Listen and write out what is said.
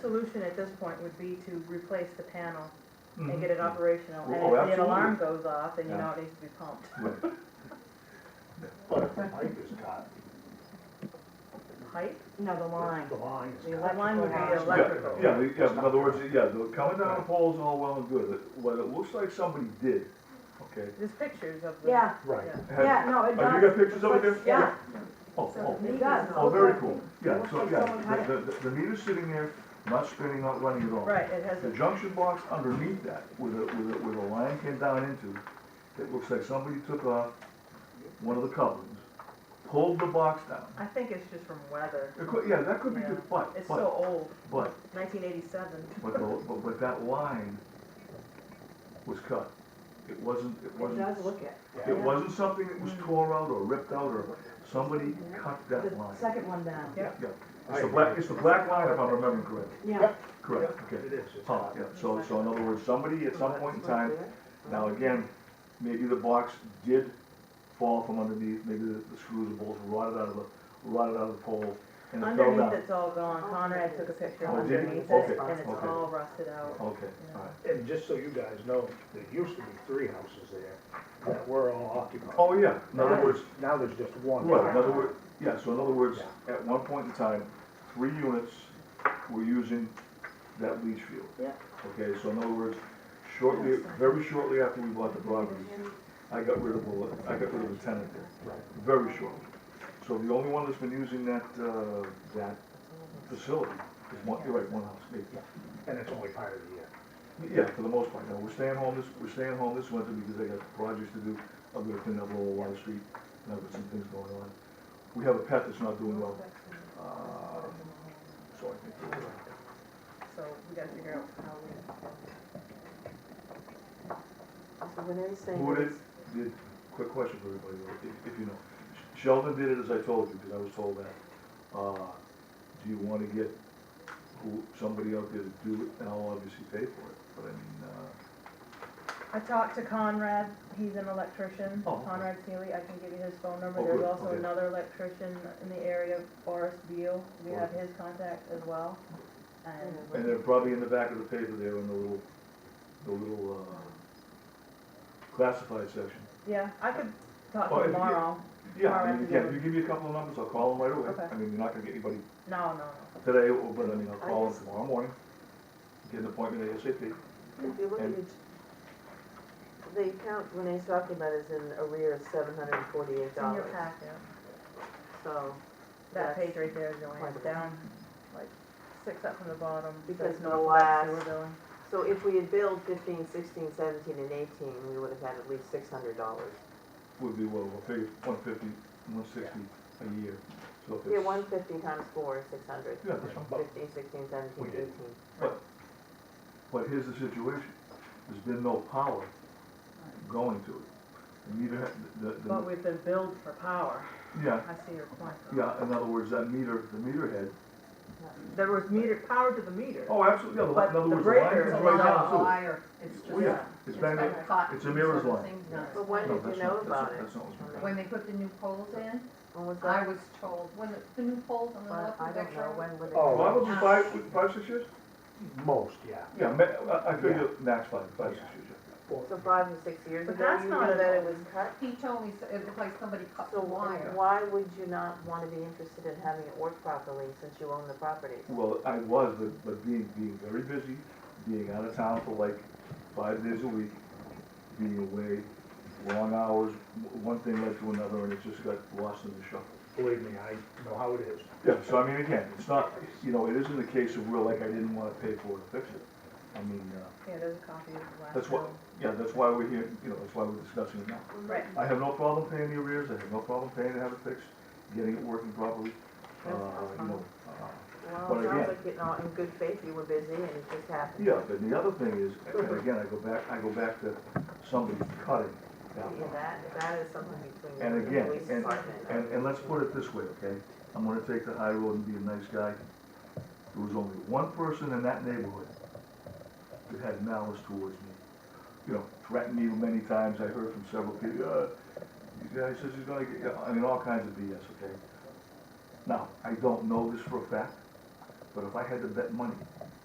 solution at this point would be to replace the panel and Mhm. get it operational. And Oh, if an alarm Mm-hmm. absolutely. goes off, then you Yeah. know it needs to be pumped. But if the pipe is cut, Pipe? No, the line. the line is The cut. That line would Yeah, be Yeah, electrical. yeah, we- yeah, in other words, yeah, the coming down the poles all well and good, It- what it looks like somebody did, okay? There's pictures of the. Yeah, Right. yeah. has- yeah, no, it does. Have you got pictures of it there? Yeah, Oh, oh, it does. oh, very cool, yeah, so, yeah, the, the, the meter's sitting there, not spinning, not running at all. Right, it has The a, junction box underneath that, where the, where the, where the line came down into, it looks like somebody took off one of the couplings, pulled the box down. I think it's just from weather. It could, yeah, that could be good, but, It's but, so old, but, nineteen eighty-seven. but, the- but, but that line was cut. It wasn't, it It wasn't. does look it. It wasn't something that was Mm. tore out or ripped out or, somebody cut that The line. second one down. Yeah, yeah. It's I the agree. black, it's the black line if I'm remembering correctly. Yeah. Yep. Correct, Yeah, okay. It is, it's Oh, hot. yeah, so, so in other words, somebody at some point in time, now again, maybe the box did fall from underneath, maybe the the screws and bolts rotted out of the, rotted out of the pole and it fell Underneath down. it's all gone. Conrad took a picture Oh, did he? underneath Okay, it and it's okay. Oh, all rusted out. Okay, all right. And just so you guys know, there used to be three houses there that were all occupied. Oh, yeah, in other words, Now there's just one. Right, in other words, yeah, so in other words, at one point in time, three units were using that leach field. Yeah. Okay, so in other words, shortly, very shortly after we bought the property, I got rid of, the- I got rid of the tenant there, Right. very shortly. So the only one that's been using that, uh, that facility is one, you're right, one house, maybe. And it's only part of the year. Yeah, for the most part, no, we're staying home this, we're staying home this winter because I got projects to do, I'm gonna clean up Lower Water Street, and I've got some things going on. We have a pet that's not doing well, uh, so I think, we're- So we gotta figure out how we, So when they're saying who did, it's- did, quick question for everybody, though, if, if you know. Sheldon did it as I told you, because I was told that, uh, do you wanna get who, somebody out there to do it, and I'll obviously pay for it, but I mean, uh, I talked to Conrad, he's an electrician, Oh, okay. Conrad Seeley, I can give you his phone number. Oh, There's good, also okay. another electrician in the area, Boris Beal, we have his contact as well. And and they're probably in the back of the paper there in the little, the little, uh, classified section. Yeah, I could talk Oh, to if him you- tomorrow. Yeah, Or I mean, after yeah, the- if you give me a couple of numbers, I'll call them right away. Okay. I mean, you're not gonna get anybody No, no, today, or- but I mean, I'll I call them just- tomorrow morning, get an appointment ASAP. if you look at it, the account Renee's talking about is in arrear of seven hundred and forty-eight it's in your dollars. packet. So, That That's page right there, Joanne, quite a bit. down, like, six up from the bottom. Because says the Northwest Sewer last- Building. so if we had billed fifteen, sixteen, seventeen, and eighteen, we would have had at least six hundred dollars. Would be, well, we'll figure one fifty, one sixty a year, so if it's. Yeah, one fifty times four is six hundred. Yeah, that's fine. Fifteen, sixteen, seventeen, We did. eighteen. But here's the situation, there's been no power going to it. And Neither, ha- the, But the, we've been billed for power, yeah, I see your point. though. yeah, in other words, that meter, the meter head. There was meter, power to the meter. Oh, absolutely, yeah, the- But in the other words, the line breaker is is right down allowed. through it. Wire, it's just. Oh, yeah, it's it's been, been caught it's a in mirror's certain line. things. But when No, did you that's know not- that's about not- it? that's not what's been When they put the new poles in, When was I that? was told, when the, the new poles on the Well, left I of don't know, when would it? Oh. Probably five, five, six years? Most, yeah. Yeah, ma- I, I figure max five, five, six years, yeah. Well, So five or six years But ago, that's you not knew an that it old- was cut? He told me so- it looked like somebody cut the So wire. why would you not want to be interested in having it work properly since you own the property? Well, I was, but, but being, being very busy, being out of town for like five days a week, being away, long hours, w- one thing led to another, and it just got lost in the shuffle. Believe me, I know how it is. Yeah, so I mean, again, it's not, you know, it isn't a case of where like I didn't wanna pay for it to fix it. I mean, uh, Yeah, there's a copy of the last that's what, bill. yeah, that's why we're here, you know, that's why we're discussing it now. Right. I have no problem paying the arrears, I have no problem paying to have it fixed, getting it working properly, uh, you know, uh, Well, But it sounds again- like, you know, in good faith, you were busy and it just happened. Yeah, but the other thing is, and again, I go back, I go back to somebody cutting down. Yeah, that, that is something between And you and the again, police and- department. And, and let's put it this way, okay? I'm gonna take the high road and be a nice guy. There was only one person in that neighborhood that had malice towards me. You know, threatened me many times, I heard from several people, uh, you guys, this is gonna get, you," I mean, all kinds of BS, okay? Now, I don't know this for a fact, but if I had to bet money